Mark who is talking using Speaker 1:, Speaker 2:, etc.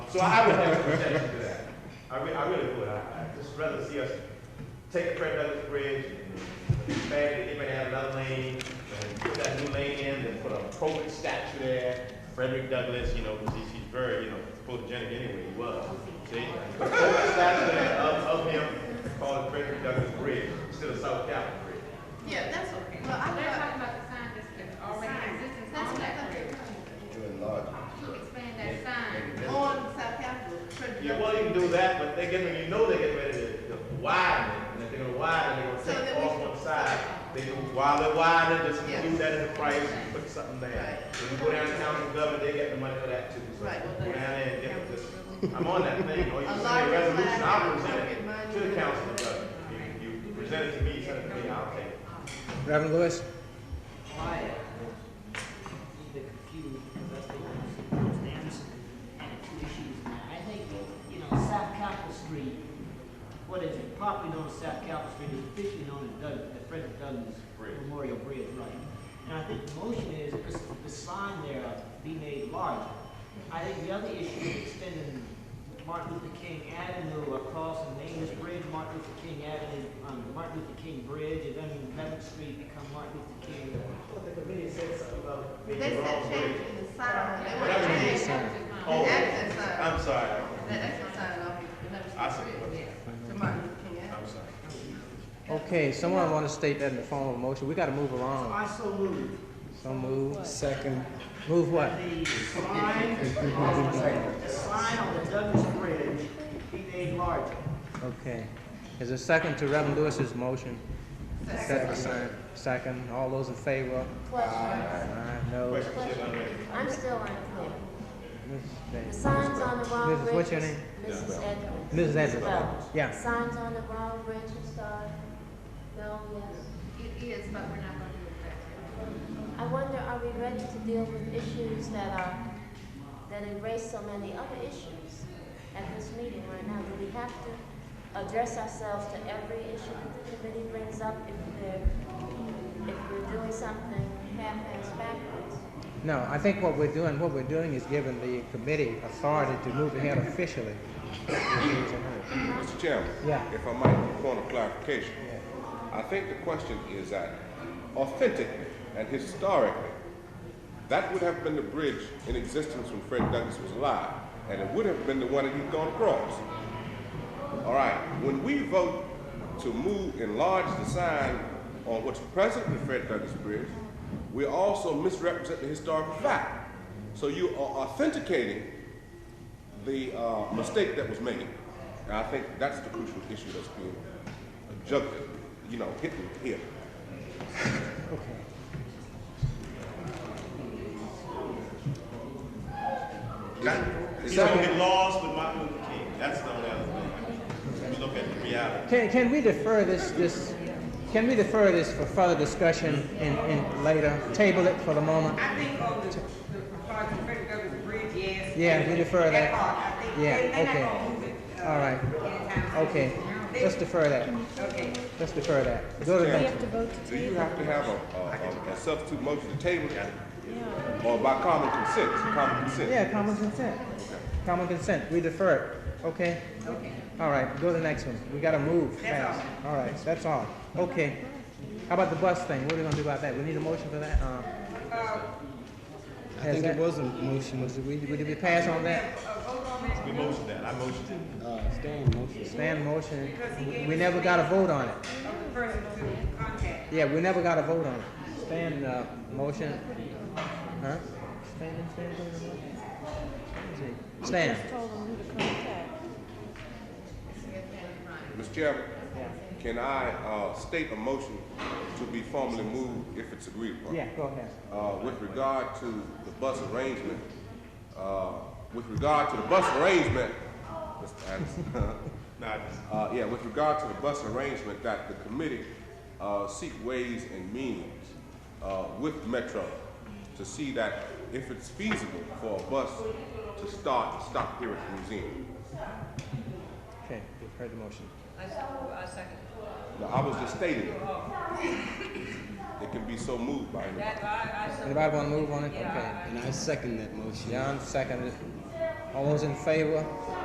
Speaker 1: So I would have an objection to that. I re, I really would. I, I'd just rather see us take the Fred Douglass Bridge and expand it, anybody have another lane, and put that new lane in, and put a appropriate statue there. Frederick Douglass, you know, 'cause he's, he's very, you know, photogenic anyway, he was. See, put a photogenic statue there of, of him, called Frederick Douglass Bridge, instead of South Capitol Bridge.
Speaker 2: Yeah, that's okay. Well, I
Speaker 3: They're
Speaker 2: love.
Speaker 3: talking about the sign that's been already existing
Speaker 2: That's
Speaker 3: on
Speaker 2: what I
Speaker 3: that
Speaker 2: thought they
Speaker 3: bridge.
Speaker 2: were talking
Speaker 4: To enlarge.
Speaker 3: You expand that sign.
Speaker 2: about. On South Capitol. Frederick
Speaker 1: Yeah,
Speaker 2: Douglass.
Speaker 1: well, you can do that, but they get, you know they get ready to to widen it, and if they're gonna widen, it,
Speaker 2: So
Speaker 1: they're gonna
Speaker 2: then
Speaker 1: take
Speaker 2: we
Speaker 1: off
Speaker 2: should-
Speaker 1: one side. They do, while they're widening, just
Speaker 2: Yeah.
Speaker 1: include that in the price, and put something there.
Speaker 2: Right.
Speaker 1: If you go down to county government, they get the money for that too, so
Speaker 2: Right, well,
Speaker 1: go down
Speaker 2: that's-
Speaker 1: there and get this. I'm on that thing, or you
Speaker 2: A
Speaker 1: can send a
Speaker 2: larger
Speaker 1: resolution,
Speaker 2: flag,
Speaker 1: I'll
Speaker 2: appropriate
Speaker 1: present it to the
Speaker 2: monument.
Speaker 1: council, of government. you, you present it to me, send it to me, I'll take it.
Speaker 5: Reverend Lewis?
Speaker 6: Wyatt is a bit confused because that's the one who's Anderson and it's two issues now. I think, you know, South Capitol Street, what is it, properly known as South Capitol Street is officially known as Doug, the Frederick Douglass
Speaker 1: Bridge.
Speaker 6: Memorial Bridge, right? And I think the motion is this- the sign there be made larger. I think the other issue is extending Martin Luther King Avenue across the name bridge, Martin Luther King Avenue, um, Martin Luther King Bridge, and then Eleventh Street become Martin Luther King
Speaker 2: They said changing the sign. They
Speaker 1: Whatever
Speaker 2: want
Speaker 1: it
Speaker 2: to
Speaker 1: is.
Speaker 2: change the
Speaker 1: Oh,
Speaker 2: accent sign.
Speaker 1: I'm sorry,
Speaker 2: The accent sign off
Speaker 1: I
Speaker 2: of
Speaker 1: see.
Speaker 2: the bridge. To Martin Luther King Avenue.
Speaker 1: I'm sorry.
Speaker 5: Okay, someone want to state that in the form of a motion. We got to move along.
Speaker 6: I so move
Speaker 5: So move.
Speaker 4: Second.
Speaker 5: Move what?
Speaker 6: the sign, on- the sign on the Douglas Bridge be made larger.
Speaker 5: Okay. Is there a second to Reverend Lewis's motion? Second. Second. All those in favor?
Speaker 7: Question.
Speaker 5: Aye, no.
Speaker 1: Question, Shit, I'm ready.
Speaker 7: I'm still unclear.
Speaker 5: Ms.
Speaker 7: The
Speaker 5: Davis.
Speaker 7: signs on the wrong
Speaker 5: Mrs.
Speaker 7: bridges.
Speaker 5: what's your name?
Speaker 7: Mrs. Edwards.
Speaker 5: Mrs. Edwards.
Speaker 7: Well,
Speaker 5: Yeah.
Speaker 7: Signs on the wrong bridges are, no, yes.
Speaker 3: It is, but we're not gonna do it that way.
Speaker 7: I wonder, are we ready to deal with issues that are, that erase so many other issues at this meeting right now? Do we have to address ourselves to every issue that the committee brings up if they're, if we're doing something half-ass backwards?
Speaker 5: No, I think what we're doing, what we're doing is giving the committee authority to move ahead officially.
Speaker 4: Mr. Chairman?
Speaker 5: Yeah.
Speaker 4: If I might, point of clarification. I think the question is that authentically and historically, that would have been the bridge in existence when Fred Douglass was alive, and it would have been the one that he'd gone across. All right, when we vote to move, enlarge the sign on what's presently Fred Douglass Bridge, we're also misrepresenting the historical fact. So you are authenticating the uh, mistake that was made. And I think that's the crucial issue that's being juggled, you know, hitting here.
Speaker 1: That-
Speaker 4: Is
Speaker 1: You don't
Speaker 4: that-
Speaker 1: get lost with Martin Luther King, that's the only other thing. You Look at the reality.
Speaker 5: Can, can we defer this, this, can we defer this for further discussion in, in later? Table it for the moment?
Speaker 8: I think on the, the proposed Frederick Douglass Bridge, yes.
Speaker 5: Yeah, we defer that.
Speaker 8: part, I think,
Speaker 5: Yeah,
Speaker 8: they- they're not
Speaker 5: okay.
Speaker 8: gonna move it, uh,
Speaker 5: All right.
Speaker 8: anytime soon.
Speaker 5: Okay,
Speaker 8: They-
Speaker 5: let's defer that.
Speaker 8: Okay.
Speaker 5: Let's defer that. Go to the next.
Speaker 4: Do you have to have a, a, a- a substitute motion to table it? Or by common consent, common consent?
Speaker 5: Yeah, common consent. Common consent, we defer it, okay? All right, go to the next one. We gotta move fast. All right, that's all. Okay. How about the bus thing? What are we gonna do about that? We need a motion for that? Uh,
Speaker 9: I
Speaker 5: has
Speaker 9: think
Speaker 5: that-
Speaker 9: it was a motion, was it,
Speaker 5: We, we- did we pass on that?
Speaker 1: We motioned that, I motioned it.
Speaker 9: uh, stand motion?
Speaker 5: Stand motion. We- We never got a vote on it.
Speaker 8: Of the person to contact.
Speaker 5: Yeah, we never got a vote on it. Stand, uh, motion. Huh? Stand, stand, stand. Stand.
Speaker 4: Mr. Chairman, can I, uh, state a motion to be formally moved if it's agreed upon?
Speaker 5: Yeah, go ahead.
Speaker 4: uh, with regard to the bus arrangement, uh, with regard to the bus arrangement, Mr. Anderson,
Speaker 1: Nah, just-
Speaker 4: uh, yeah, with regard to the bus arrangement, that the committee uh, seek ways and means uh, with Metro to see that if it's feasible for a bus to start, and stop here at the museum.
Speaker 5: Okay, you've heard the motion.
Speaker 4: Now, I was just stating it. It can be so moved by anybody.
Speaker 5: Anybody wanna move on it? Okay.
Speaker 9: And I second that motion.
Speaker 5: John seconded. All those in favor?